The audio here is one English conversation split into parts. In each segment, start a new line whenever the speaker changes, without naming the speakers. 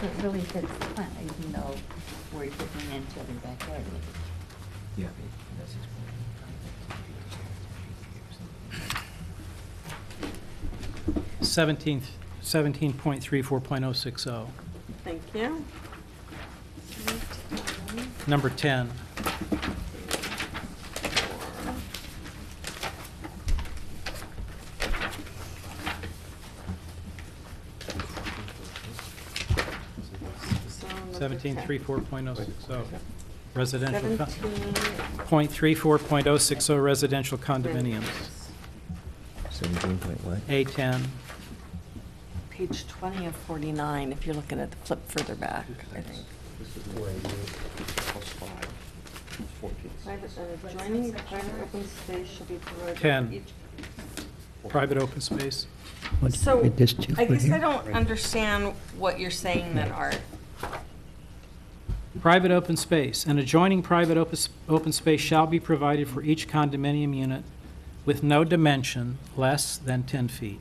So it really fits the plan, even though we're dipping into the backyard.
Yeah.
Seventeenth, seventeen point three four point oh six oh.
Thank you.
Number ten,
So number
seventeen three
10.
four point oh six oh, residential, con-
17
point three four point oh six oh residential condominiums.
Seventeen point what?
A ten,
Page 20 of 49, if you're looking at the flip further back, I think.
This is where you, plus five, fourteen.
Private and adjoining private open space shall be provided.
10.
each-
private open space.
So,
With this too,
I guess
right
I
here.
don't understand what you're saying then, Art.
Private open space, an adjoining private open, s- open space shall be provided for each condominium unit with no dimension less than ten feet.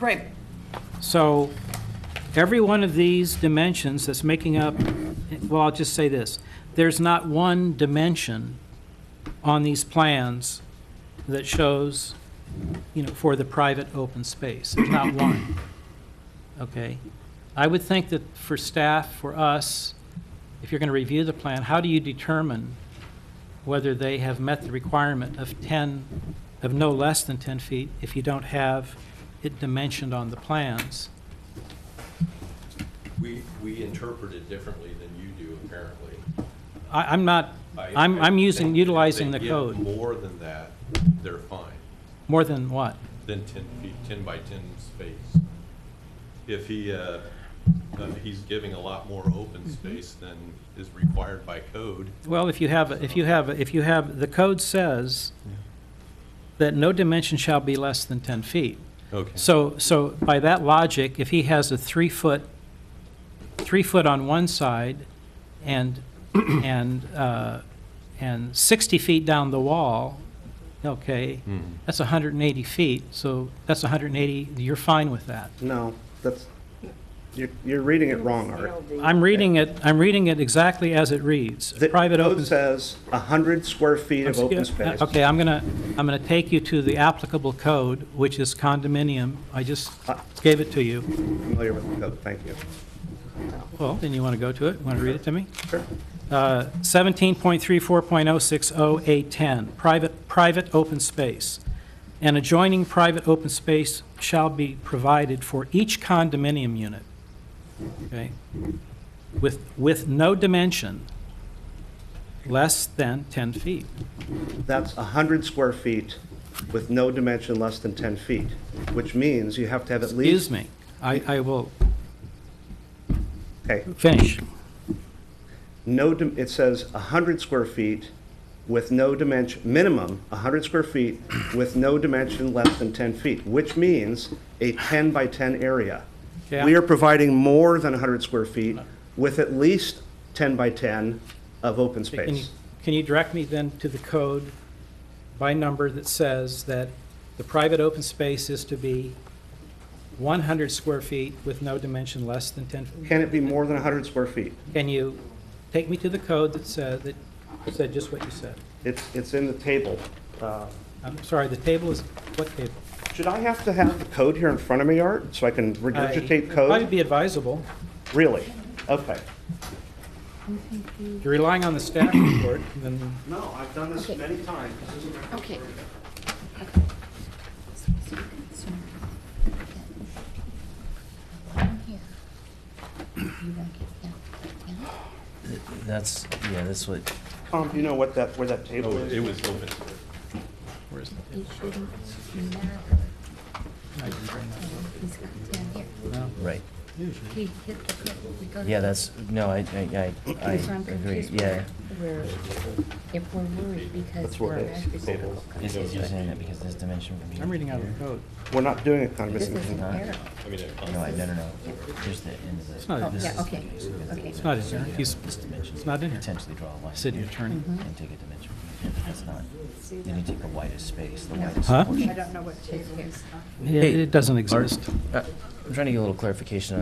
Right.
So every one of these dimensions that's making up, well, I'll just say this, there's not one dimension on these plans that shows, you know, for the private open space, There's not one. Okay? I would think that for staff, for us, if you're going to review the plan, how do you determine whether they have met the requirement of 10, of no less than 10 feet if you don't have it dimensioned on the plans?
We, we interpret it differently than you do apparently.
I, I'm not,
I-
I'm,
I
I'm using,
think if
utilizing the
they give
code,
more than that, they're fine,
more than what?
than 10 feet, 10 by 10 space. If he, uh, uh, he's giving a lot more open space than is required by code,
Well, if you have, if you have, if you have, the code says that no dimension shall be less than 10 feet.
okay.
So, so by that logic, if he has a three-foot, three-foot on one side and, and, uh, and 60 feet down the wall, okay,
Hmm.
that's 180 feet, so that's 180, you're fine with that.
No, that's, you're, you're reading it wrong, Art.
I'm reading it, I'm reading it exactly as it reads.
The
Private open.
Code says a hundred square feet of open space.
Okay, I'm gonna, I'm gonna take you to the applicable code, which is condominium. I just
Uh,
gave it to you.
Familiar with the code, thank you.
Well, then you want to go to it? Want to read it to me?
Sure.
Uh, 17.34.060A10, private, private open space. An adjoining private open space shall be provided for each condominium unit, okay? With, with no dimension less than 10 feet.
That's a hundred square feet with no dimension less than ten feet, which means you have to have at
Excuse
least.
me, I, I will
Okay,
finish.
no, dim- it says a hundred square feet with no dimension, minimum, a hundred square feet with no dimension less than ten feet, which means a ten by ten area.
Yeah.
We are providing more than a hundred square feet with at least ten by ten of open
Can you,
space.
can you direct me then to the code by number that says that the private open space is to be 100 square feet with no dimension less than 10?
Can it be more than a hundred square feet?
Can you take me to the code that said, that said just what you said?
It's, it's in the table. Uh,
I'm sorry, the table is, what table?
Should I have to have the code here in front of me, Art, so I can regurgitate
It'd Probably
code?
be advisable.
Really? Okay.
If you're relying on the staff report, then
No, I've done this many times.
Okay.
That's, yeah, that's what,
Tom, do you know what that, where that table
Oh,
is?
it was open space.
where's the
It shouldn't matter. He's got down here.
Right,
He hit the hip. We go to
yeah,
the-
that's, no, I, I, I- I
So I'm
agree,
confused
yeah.
where- where- If we're worried because
That's where
we're.
it is.
actually-
This is just saying that because this dimension from here.
I'm reading out
to
of the
here.
code.
We're not doing a
This
condominium.
is an
not.
arrow.
I mean, it-
No, I, no, no, no, just the end of the.
It's not in
this
there.
is
Oh, Yeah,
the
okay,
base of it.
okay. It's
not in there. He's-
This dimension.
it's not in here.
Potentially draw a line.
City
here
attorney.
Mhm.
And take a dimension from here, but that's not, then you take the widest space, the
No.
widest
Huh?
portion.
don't know what table he's on.
It it doesn't exist.
Uh, I'm trying to get a little clarification on